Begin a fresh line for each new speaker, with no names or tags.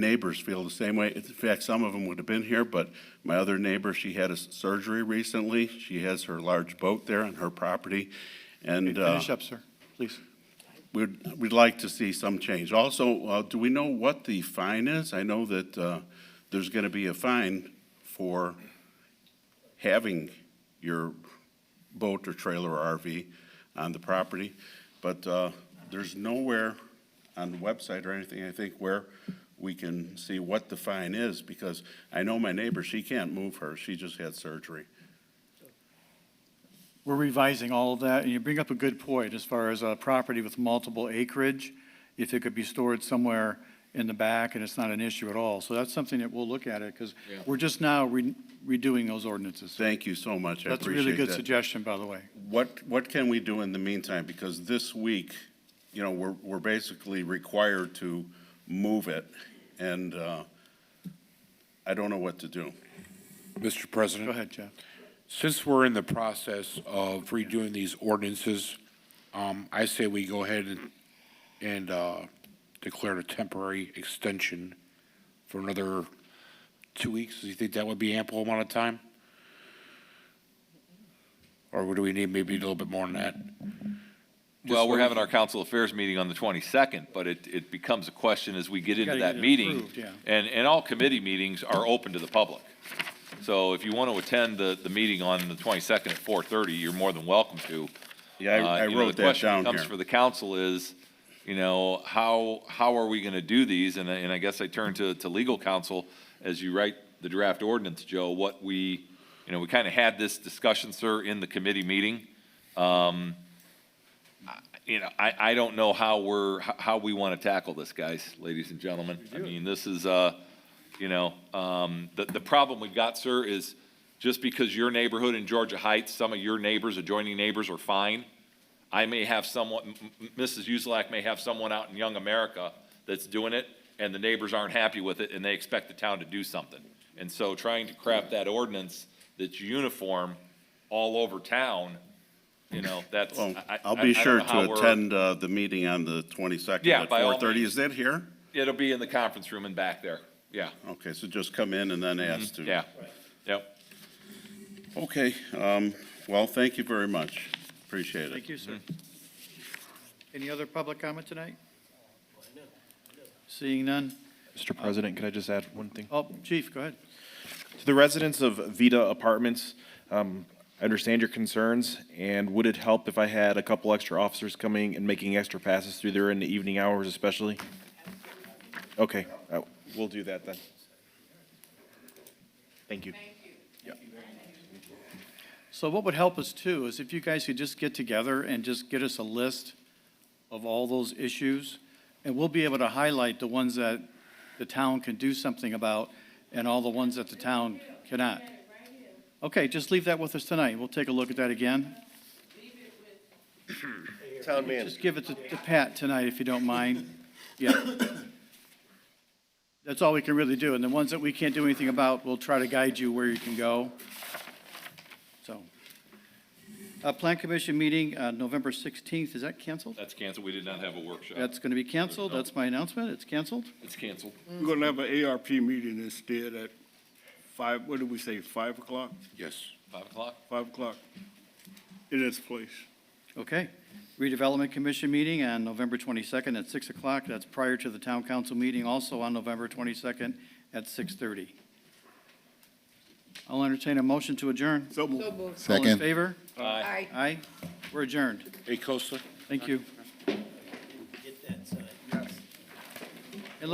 neighbors feel the same way. In fact, some of them would have been here, but my other neighbor, she had a s- surgery recently. She has her large boat there on her property, and uh,
Finish up, sir, please.
we'd, we'd like to see some change. Also, uh, do we know what the fine is? I know that uh, there's going to be a fine for having your boat or trailer or RV on the property, but uh, there's nowhere on the website or anything, I think, where we can see what the fine is, because I know my neighbor, she can't move her, she just had surgery.
We're revising all of that, and you bring up a good point as far as a property with multiple acreage, if it could be stored somewhere in the back, and it's not an issue at all. So that's something that we'll look at it, because we're just now re- redoing those ordinances.
Thank you so much, I
That's a
appreciate that.
really good suggestion, by the way.
What, what can we do in the meantime? Because this week, you know, we're, we're basically required to move it, and uh, I don't know what to do.
Mr.
Go
President,
ahead, Jeff.
since we're in the process of redoing these ordinances, um, I say we go ahead and, and, uh, declare a temporary extension for another two weeks. Do you think that would be ample amount of time? Or do we need maybe a little bit more than that?
Well, we're having our council affairs meeting on the 22nd, but it, it becomes a question as we get into
Gotta
that
get it
meeting.
approved, yeah.
And, and all committee meetings are open to the public. So if you want to attend the, the meeting on the 22nd at 4:30, you're more than welcome to.
Yeah, I-
Uh,
I
you know,
wrote that
the question
down
becomes for
here.
the council is, you know, how, how are we going to do these? And, I- and I guess I turn to, to legal counsel, as you write the draft ordinance, Joe, what we, you know, we kind of had this discussion, sir, in the committee meeting. Um, I- You know, I, I don't know how we're, h- how we want to tackle this, guys, ladies and gentlemen. I mean, this is, uh, you know, um, the, the problem we've got, sir, is just because your neighborhood in Georgia Heights, some of your neighbors, adjoining neighbors are fine, I may have someone, M- M- Mrs. Uselak may have someone out in Young America that's doing it, and the neighbors aren't happy with it, and they expect the town to do something. And so trying to craft that ordinance that's uniform all over town, you know, that's, I,
Well,
I-
Oh, I'll
I
be
don't
sure
know how
to
we're-
attend uh, the meeting on the 22nd
Yeah,
at
by all
4:30. Is that here?
It'll be in the conference room and back there, yeah,
Okay, so just come in and then ask to.
Mm-hmm. yeah, yep.
Okay, um, well, thank you very much. Appreciate it.
Thank you, sir.
Mm-hmm.
Any other public comment tonight? Seeing none?
Mr. President, could I just add one thing?
Oh, Chief, go ahead.
To the residents of Vita Apartments, um, I understand your concerns, and would it help if I had a couple extra officers coming and making extra passes through there in the evening hours especially? Okay, uh, we'll do that then. Thank you.
So what would help us too is if you guys could just get together and just get us a list of all those issues, and we'll be able to highlight the ones that the town can do something about and all the ones that the town cannot. Okay, just leave that with us tonight. We'll take a look at that again.
Town manager,
Just give it to to Pat tonight if you don't mind. Yeah. That's all we can really do. And the ones that we can't do anything about, we'll try to guide you where you can go. So. Uh, Plan Commission meeting, uh, November 16th, is that canceled?
That's canceled, we did not have a workshop,
That's going to be canceled. That's my announcement. It's canceled.
it's canceled.
We're gonna have an ARP meeting instead at five, what did we say, five o'clock?
Yes.
Five o'clock?
Five o'clock in this place.
Okay. Redevelopment Commission meeting on November 22nd at 6 o'clock. That's prior to the Town Council meeting, also on November 22nd at 6:30. I'll entertain a motion to adjourn.
So moved.
All in favor?
Aye.
Aye. We're adjourned.
Hey, Costa?
Thank you.
get that, sir.